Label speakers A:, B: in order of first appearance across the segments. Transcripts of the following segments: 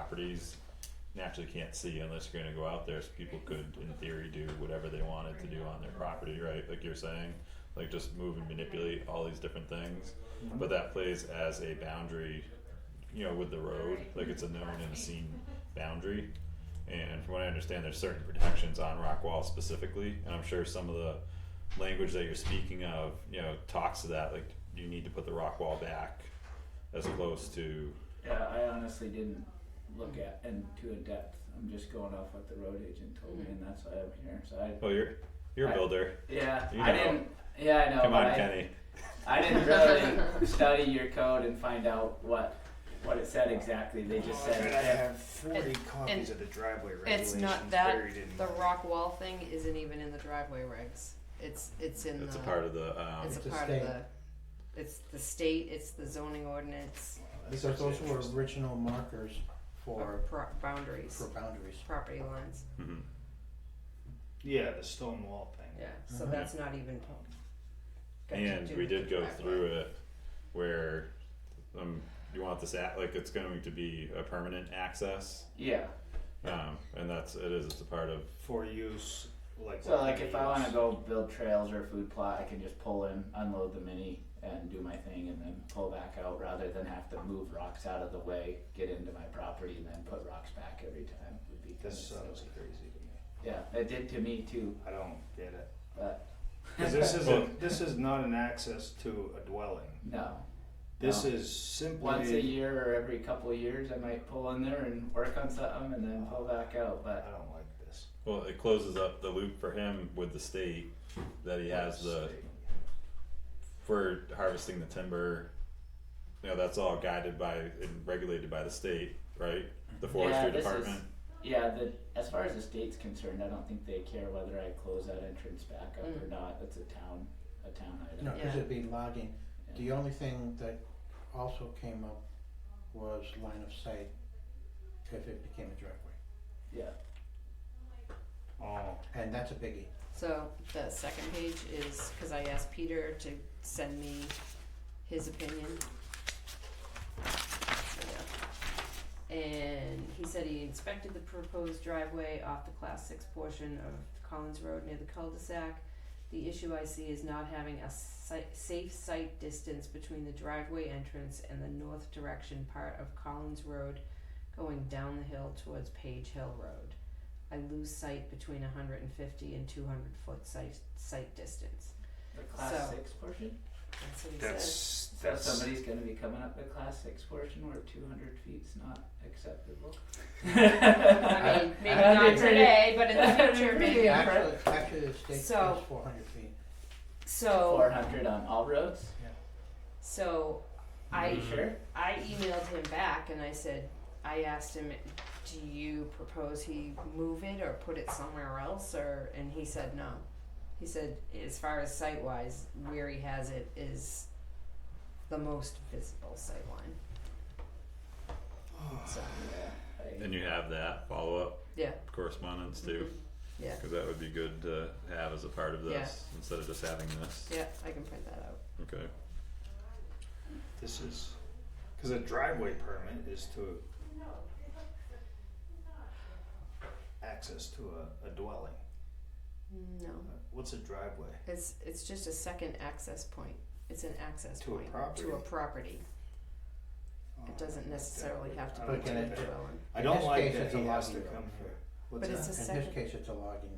A: properties naturally can't see unless you're gonna go out there, so people could in theory do whatever they wanted to do on their property, right, like you're saying? Like just move and manipulate all these different things, but that plays as a boundary, you know, with the road, like it's a known and seen boundary. And from what I understand, there's certain protections on rock wall specifically, and I'm sure some of the language that you're speaking of, you know, talks to that, like you need to put the rock wall back as close to
B: Yeah, I honestly didn't look at into in depth. I'm just going off what the road agent told me, and that's why I'm here. So I,
A: Oh, you're you're a
B: I-
A: builder.
B: yeah,
A: You
B: I
A: know.
B: didn't. Yeah, I know.
A: Come
B: but
A: on,
B: I,
A: Kenny.
B: I didn't really study your code and find out what what it said exactly. They just
C: Oh, I bet I
B: said
C: have forty copies of the driveway regulations
D: It's not that
C: buried in
D: the
C: my-
D: rock wall thing isn't even in the driveway regs. It's it's in
A: It's a
D: the
A: part of the um,
D: it's a
E: It's a
D: part
E: state.
D: of the it's the state, it's the zoning ordinance
E: Because those were
C: Interesting.
E: original markers
D: or
E: for,
D: uh, pro- boundaries,
E: for boundaries.
D: property lines.
A: mhm.
C: Yeah, the stone wall thing.
D: Yeah, so
E: Mhm.
D: that's not even got to
A: and
D: do
A: we
D: with
A: did
D: the
A: go
D: driveway.
A: through it where um you want this at like it's going to be a permanent access.
B: yeah.
A: Um, and that's it is it's a part of
C: For use, like.
B: So like
C: for
B: if I
C: use.
B: want to go build trails or a food plot, I can just pull in, unload the mini, and do my thing, and then pull back out rather than have to move rocks out of the way, get into my property, and then put rocks back every time. Would be kind
C: This
B: of
C: sounds
B: silly.
C: crazy to me.
B: Yeah, it did to me too.
C: I don't get it.
B: But
C: 'Cause this is
A: Well-
C: a, this is not an access to a dwelling.
B: no,
C: This
B: No.
C: is
B: once a
C: simply,
B: year or every couple of years, I might pull in there and work on something, and then pull back out.
C: I
B: But
C: don't like this.
A: well it closes up the loop for him with the state that he has the for harvesting the timber. You know that's all guided by and regulated by the state, right? The forestry
B: this is-
A: department.
B: yeah, the as far as the state's concerned, I don't think they care whether I close that entrance back up or
D: Mm.
B: not. It's a town, a town item.
E: No, because
D: Yeah.
E: it'd be logging. The only thing that also came up was line of sight if it became a driveway.
B: Yeah.
C: Oh,
E: And that's a biggie.
D: So the second page is, cause I asked Peter to send me his opinion. And he said he inspected the proposed driveway off the class six portion of Collins Road near the cul-de-sac. The issue I see is not having a si- safe sight distance between the driveway entrance and the north direction part of Collins Road going down the hill towards Page Hill Road. I lose sight between 150 and 200 foot sight, sight distance.
B: The class
D: So-
B: six portion?
D: That's what he says.
C: that's,
B: So
C: that's.
B: somebody's gonna be coming up the class six portion where two hundred feet's not acceptable?
D: I
B: I
D: mean, maybe not today, but in the future, maybe.
E: Actually, actually the state
D: So-
E: is four hundred feet.
D: So,
B: Four hundred on all roads?
D: so I
B: You
D: Mm.
B: sure?
D: I emailed him back and I said, I asked him, do you propose he move it or put it somewhere else? Or and he said no. He said, as far as sight wise, where he has it is the most visible sight line. So
B: Yeah.
A: And you have that follow up
D: yeah, Mm-hmm.
A: correspondence too.
D: Yeah.
A: Because that would be good to have as a part of
D: Yeah.
A: this instead of just having this.
D: yeah, I can print that out.
A: Okay.
C: This is, cause a driveway permit is to access to a, a dwelling.
D: No.
C: Uh, What's a driveway?
D: It's it's just a second access point. It's an access
C: To a
D: point
C: property.
D: to a property.
C: Oh,
D: It doesn't
C: I don't like
D: necessarily
C: that.
D: have to
C: I
D: be
C: don't
D: to a
E: Okay.
C: like that.
D: dwelling.
C: I
E: In
C: don't
E: this
C: like
E: case,
C: that
E: it's a
C: he has to
E: logging
C: come
E: road.
C: here.
D: But
C: What's
D: it's
C: that?
D: a
E: In this
D: second.
E: case, it's a logging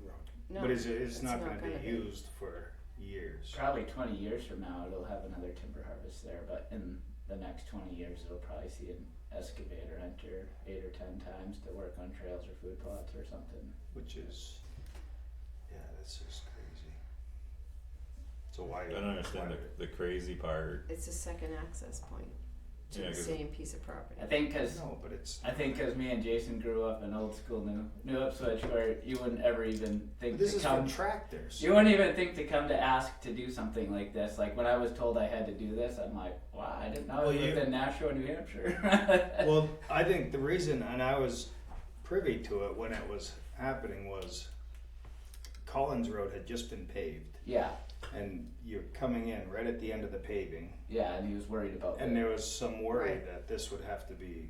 E: road.
D: No.
C: But is it, it's
D: it's
C: not
D: not
C: gonna
D: gonna
C: be
D: be.
C: used for years.
B: Probably twenty years from now, it'll have another timber harvest there, but in the next twenty years, it'll probably see an excavator enter eight or ten times to work on trails or food plots or something.
C: Which is, yeah, that's just crazy. So why?
A: I don't understand
C: why-
A: the, the crazy part.
D: It's a second access point to
A: Yeah,
D: the
A: 'cause-
D: same piece of property.
B: I think 'cause
C: No, but it's.
B: I think 'cause me and Jason grew up in old school New New Ipswich, where you wouldn't ever even think
C: But This
B: to
C: is
B: come.
C: for tractors.
B: you wouldn't even think to come to ask to do something like this. Like when I was told I had to do this, I'm like, wow, I didn't know I
C: Well,
B: lived
C: you-
B: in Nashua, New Hampshire.
C: Well, I think the reason, and I was privy to it when it was happening, was Collins Road had just been paved,
B: yeah,
C: and you're coming in right at the end of the paving,
B: yeah, and he was worried about
C: and
B: it.
C: there was some worry
D: Right.
C: that this would have to be